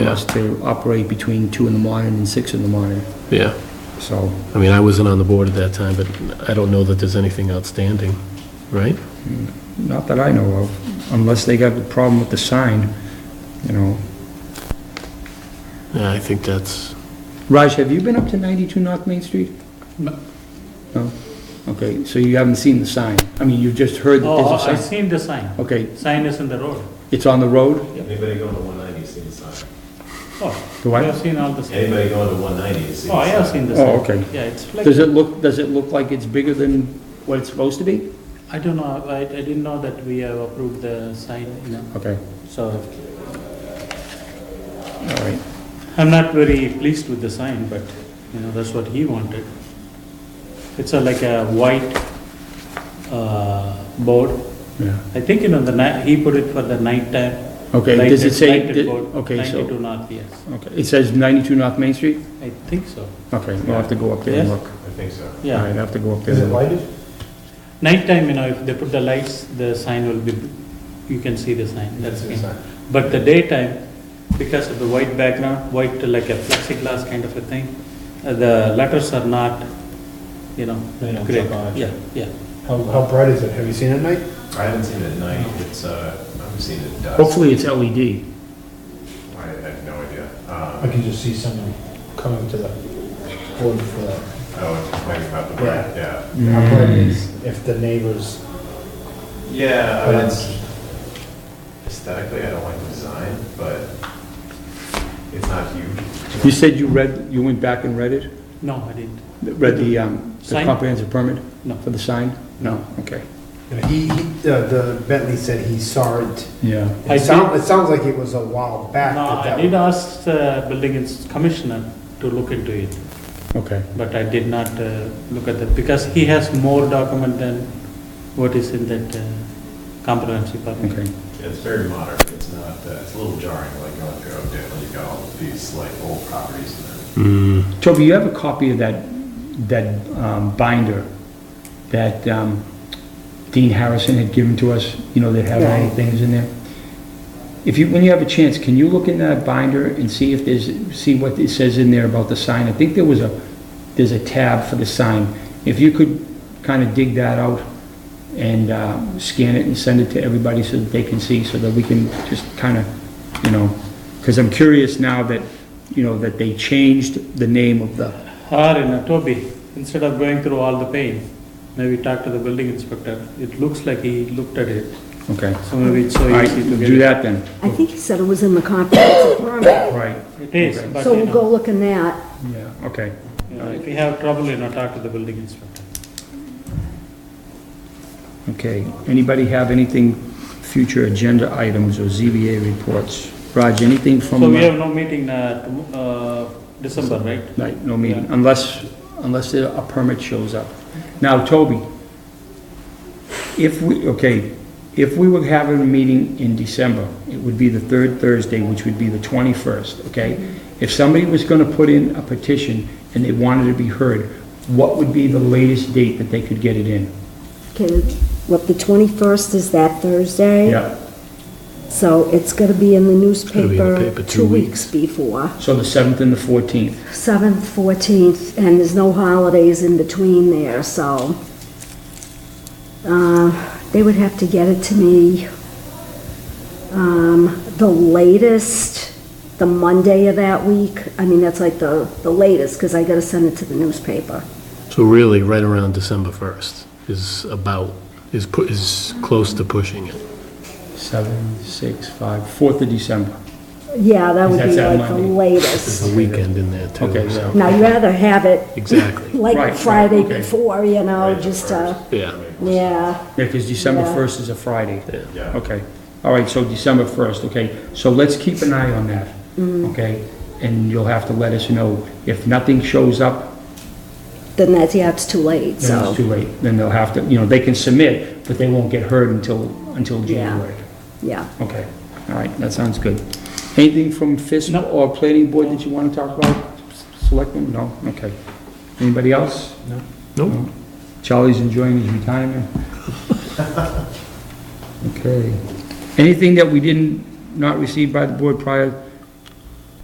us to operate between two in the morning and six in the morning, Yeah, so. I mean, I wasn't on the board at that time, but I don't know that there's anything outstanding, right? Not that I know of, unless they got a problem with the sign, you know. Yeah, I think that's, Raj, have you been up to 92 North Main Street? No. No? Okay, so you haven't seen the sign? I mean, you've just heard that Oh, I there's a sign? seen the sign. Okay, Sign is in the road. it's on the road? Anybody going to 190 has seen the sign. Oh, Do I I? have seen all the sign. Anybody going to 190 has seen the Oh, sign. I have seen the sign. Oh, okay. Yeah, it's like, Does it look, does it look like it's bigger than what it's supposed to be? I don't know, I, I didn't know that we have approved the sign, you know, Okay, so all right. I'm not very pleased with the sign, but, you know, that's what he wanted. It's a like a white, uh, board. Yeah. I think, you know, the night, he put it for the nighttime. Okay, does lighted- it say, lighted board, okay, so, Ninety-two north, yes, okay, it says 92 North Main Street? I think so, Okay, we'll have to go up there and Yes. look. I think so. All yeah. right, I have to go up there and look. lighted? Nighttime, you know, if they put the lights, the sign will be, you can see the sign, that's It's it. a sign. But the daytime, because of the white background, white like a plexiglass kind of a thing, uh, the letters are not, you know, They don't great. jump out at you. Yeah, yeah. How, how bright is it? Have you seen it at night? I haven't seen it at night, it's, uh, I've seen it at dusk. Hopefully it's E LED. I have no idea. I Um, can just see someone coming to the board for that. Oh, it might be about the Yeah. bright, yeah. Mm. How bright it is, if the neighbors, Yeah, I But mean, it's- it's aesthetically, I don't like the design, but it's not huge. You said you read, you went back and read it? No, I didn't. Read the, um, the Sign? comprehensive permit No. for the sign? No, okay. he, he- the the Bentley said he saw it. Yeah. I It sounds, did- it sounds like it was a while back. No, that that I did ask the building ins- commissioner to look into it, Okay, but I did not uh, look at that, because he has more document than what is in that uh, comprehensive permit. okay. It's very modern, it's not, uh, it's a little jarring, like going through Oakdale, you got all these like old properties and then mm, Toby, you have a copy of that, that um, binder that um, Dean Harrison had given to us, you know, that have all the things in there? If you, when you have a chance, can you look in that binder and see if there's, see what it says in there about the sign? I think there was a, there's a tab for the sign. If you could kind of dig that out and uh, scan it and send it to everybody so that they can see, so that we can just kind of, you know, because I'm curious now that, you know, that they changed the name of the, Or in a Toby, instead of going through all the pain, maybe talk to the building inspector. It looks like he looked at it, okay. so maybe it's so All right, easy do to Oh, get it. that then. I think he said it was in the comprehensive permit, Right, It is, Okay. but so you we'll go know, look in that. yeah, okay. you know, if you have trouble, you know, talk to the building inspector. Okay, anybody have anything, future agenda items or ZBA reports? Raj, anything from? So we uh, have no meeting, uh, tom- uh, December, right? Right, no meeting, unless, unless there- a permit shows up. Now, Toby, if we, okay, if we were having a meeting in December, it would be the third Thursday, which would be the 21st, okay? If somebody was going to put in a petition and they wanted to be heard, what would be the latest date that they could get it in? Okay, what, the 21st is that Thursday? Yeah, So it's going to be in the gonna be in the newspaper paper two two weeks before, so the 7th and the 14th. 7th, 14th, and there's no holidays in between there, so uh, they would have to get it to me um, the latest, the Monday of that week. I mean, that's like the the latest, because I got to send it to the newspaper. so really, right around December 1st is about, is, pu- is close to pushing it. 7, 6, 5, 4th of December. Yeah, that would That's be that like the Monday. latest. There's a weekend in there too. Okay, so- Now, you'd rather have it Exactly, Right, like Friday okay. before, you know, Right, just, uh, yeah. yeah, Yeah, because December Yeah. 1st is a Friday. Yeah. Okay, all right, so December 1st, okay, so let's keep an eye on that, Mm-hmm. okay? And you'll have to let us know, if nothing shows up, then that's, yeah, it's too then late, it's so, too late, then they'll have to, you know, they can submit, but they won't get heard until, until January. yeah. Okay, all right, that sounds good. Anything from FISB No. or Planning Board that you want to talk about, Selectmen? No, okay. Anybody else? Nope. Charlie's enjoying his retirement. Okay. Anything that we didn't, not receive by the board prior